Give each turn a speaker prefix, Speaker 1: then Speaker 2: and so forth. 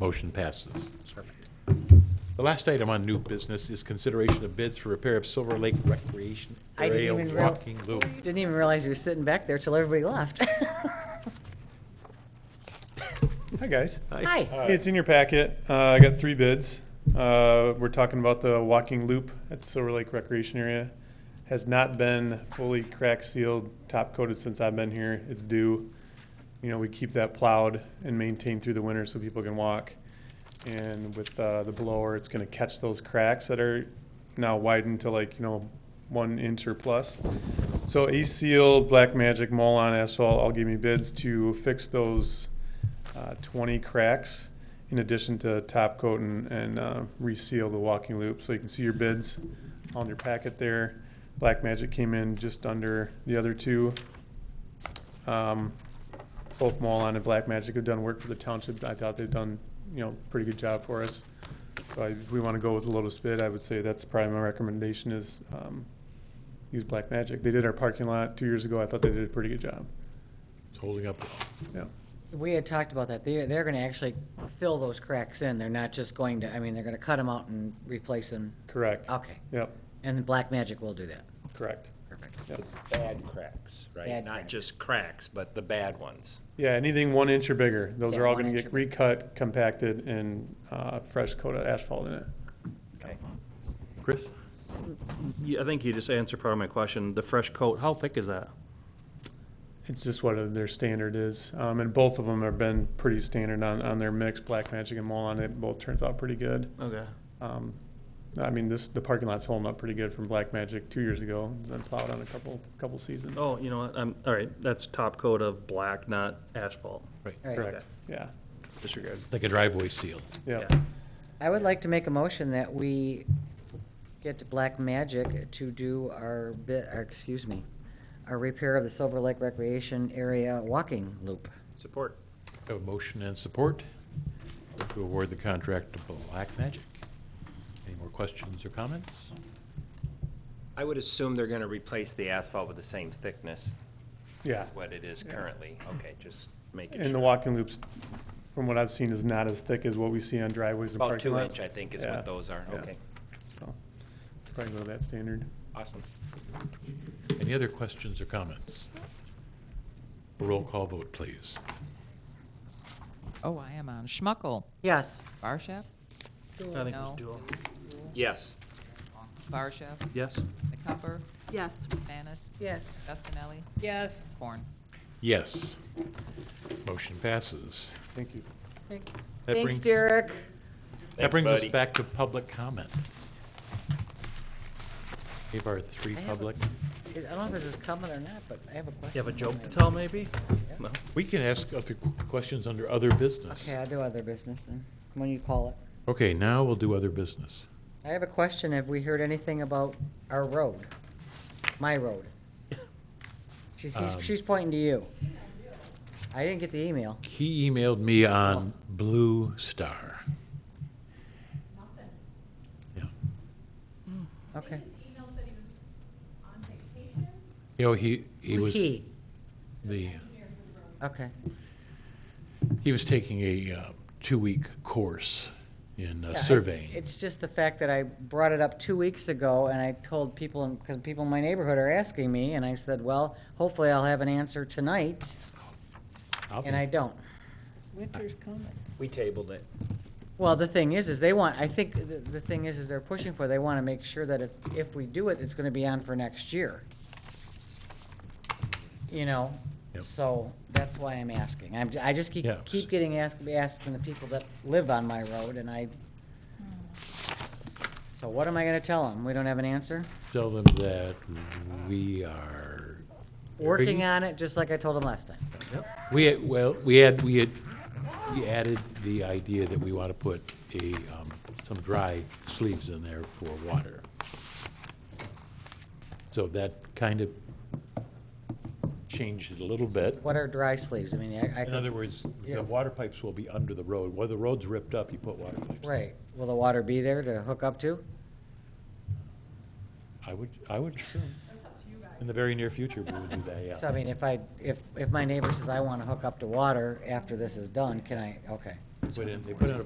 Speaker 1: Motion passes. The last item on new business is consideration of bids for repair of Silver Lake Recreation
Speaker 2: I didn't
Speaker 1: Trail
Speaker 2: even real-
Speaker 1: walking loop.
Speaker 2: Didn't even realize you were sitting back there till everybody left.
Speaker 3: Hi, guys.
Speaker 2: Hi.
Speaker 3: Hey, it's in your packet. Uh, I got three bids. Uh, we're talking about the walking loop at Silver Lake Recreation Area. Has not been fully crack sealed, top coated since I've been here. It's due. You know, we keep that plowed and maintained through the winter so people can walk. And with uh, the blower, it's going to catch those cracks that are now widened to like, you know, one inch or plus. So Ace Seal, Black Magic, Molon Asphalt all gave me bids to fix those uh, 20 cracks in addition to top coat and, and uh, reseal the walking loop. So you can see your bids on your packet there. Black Magic came in just under the other two. Um, both Molon and Black Magic have done work for the township. I thought they've done, you know, pretty good job for us. So I, if we want to go with the lowest bid, I would say that's probably my recommendation is um, use Black Magic. They did our parking lot two years ago. I thought they did a pretty good job.
Speaker 1: It's holding up.
Speaker 3: Yeah.
Speaker 2: We had talked about that. They're, they're gonna actually fill those cracks in. They're not just going to, I mean, they're gonna cut them out and replace them.
Speaker 3: Correct.
Speaker 2: Okay.
Speaker 3: Yep.
Speaker 2: And then Black Magic will do that.
Speaker 3: Correct.
Speaker 2: Perfect.
Speaker 3: Yep.
Speaker 4: Bad cracks, right?
Speaker 2: Bad
Speaker 4: Not
Speaker 2: cracks.
Speaker 4: just cracks, but the bad ones.
Speaker 3: Yeah, anything one inch or bigger, those
Speaker 2: Yeah,
Speaker 3: are all
Speaker 2: one
Speaker 3: gonna
Speaker 2: inch
Speaker 3: get
Speaker 2: or bigger.
Speaker 3: recut, compacted, and, uh, fresh coat of asphalt in it.
Speaker 1: Chris?
Speaker 5: Yeah, I think you just answered part of my question. The fresh coat, how thick is that?
Speaker 3: It's just what their standard is, um, and both of them have been pretty standard on, on their mix, Black Magic and Molon, it both turns out pretty good.
Speaker 5: Okay.
Speaker 3: Um, I mean, this, the parking lot's holding up pretty good from Black Magic two years ago, it's been plowed on a couple, couple seasons.
Speaker 5: Oh, you know what? I'm, all right, that's top coat of black, not asphalt.
Speaker 2: All right.
Speaker 3: Correct, yeah,
Speaker 5: Disregard.
Speaker 1: Like a driveway seal.
Speaker 3: yeah.
Speaker 2: I would like to make a motion that we get Black Magic to do our bit, or, excuse me, our repair of the Silver Lake Recreation Area walking loop.
Speaker 4: Support.
Speaker 1: Have a motion and support to award the contract to Black Magic. Any more questions or comments?
Speaker 4: I would assume they're gonna replace the asphalt with the same thickness
Speaker 3: Yeah,
Speaker 4: as what it is currently. Okay, just make it
Speaker 3: and the
Speaker 4: sure.
Speaker 3: walking loops, from what I've seen, is not as thick as what we see on driveways and
Speaker 4: About
Speaker 3: parking
Speaker 4: two
Speaker 3: lots.
Speaker 4: inch, I think, is
Speaker 3: Yeah.
Speaker 4: what those are.
Speaker 3: Yeah.
Speaker 4: Okay,
Speaker 3: So, Probably go that standard.
Speaker 4: awesome.
Speaker 1: Any other questions or comments? Roll call vote, please.
Speaker 6: Oh, I am on. Schmuckel.
Speaker 2: Yes.
Speaker 5: I
Speaker 6: Barshaf?
Speaker 5: think it was
Speaker 6: No.
Speaker 5: dual.
Speaker 4: Yes,
Speaker 6: Barshaf?
Speaker 5: Yes?
Speaker 6: McCumber?
Speaker 7: Yes.
Speaker 6: Manis?
Speaker 7: Yes.
Speaker 6: Dustinelli?
Speaker 7: Yes.
Speaker 6: Corn.
Speaker 1: Yes. Motion passes.
Speaker 3: Thank you.
Speaker 1: That
Speaker 2: Thanks,
Speaker 1: brings-
Speaker 2: Derek.
Speaker 1: That brings us
Speaker 4: buddy.
Speaker 1: back to public comment. We have our three
Speaker 2: I have a-
Speaker 1: public.
Speaker 2: I don't know if this is coming or not, but I have a question.
Speaker 5: You have a joke to tell, maybe? No?
Speaker 1: We can ask other qu- questions under other business.
Speaker 2: Okay, I'll do other business then, when you call it.
Speaker 1: Okay, now we'll do other business.
Speaker 2: I have a question. Have we heard anything about our road? My road? She's, he's-
Speaker 1: Um,
Speaker 2: she's pointing to you. I didn't get the email.
Speaker 1: He emailed me on Blue Star. Yeah.
Speaker 2: Okay.
Speaker 8: email said he was on vacation.
Speaker 1: You know, he, he
Speaker 2: Who's
Speaker 1: was uh,
Speaker 2: he?
Speaker 1: the,
Speaker 2: Okay.
Speaker 1: he was taking a uh, two-week course in uh,
Speaker 2: Yeah, I-
Speaker 1: surveying.
Speaker 2: It's just the fact that I brought it up two weeks ago and I told people, because people in my neighborhood are asking me, and I said, well, hopefully I'll have an answer tonight,
Speaker 1: I'll
Speaker 2: and I
Speaker 1: be-
Speaker 2: don't.
Speaker 7: Winter's coming.
Speaker 4: we tabled it.
Speaker 2: Well, the thing is, is they want, I think the, the thing is, is they're pushing for, they want to make sure that it's, if we do it, it's going to be on for next year. You know,
Speaker 1: Yep.
Speaker 2: so that's why I'm asking. I'm, I just keep,
Speaker 1: Yeah.
Speaker 2: keep getting asked, asked from the people that live on my road and I, so what am I going to tell them? We don't have an answer?
Speaker 1: Tell them that we are.
Speaker 2: Working
Speaker 1: very-
Speaker 2: on it, just like I told them last time.
Speaker 1: We, had- well, we had, we had, we added the idea that we want to put a, um, some dry sleeves in there for water. So that kind of changed it a little bit.
Speaker 2: What are dry sleeves? I mean, I, I
Speaker 1: In
Speaker 2: could,
Speaker 1: other words,
Speaker 2: Yeah.
Speaker 1: the water pipes will be under the road. Where the road's ripped up, you put water pipes. in.
Speaker 2: right, will the water be there to hook up to?
Speaker 1: I would, I would assume. In the very near future, we would do that, yeah.
Speaker 2: So I mean, if I, if, if my neighbor says I want to hook up to water after this is done, can I, okay.
Speaker 1: Put in- They put in a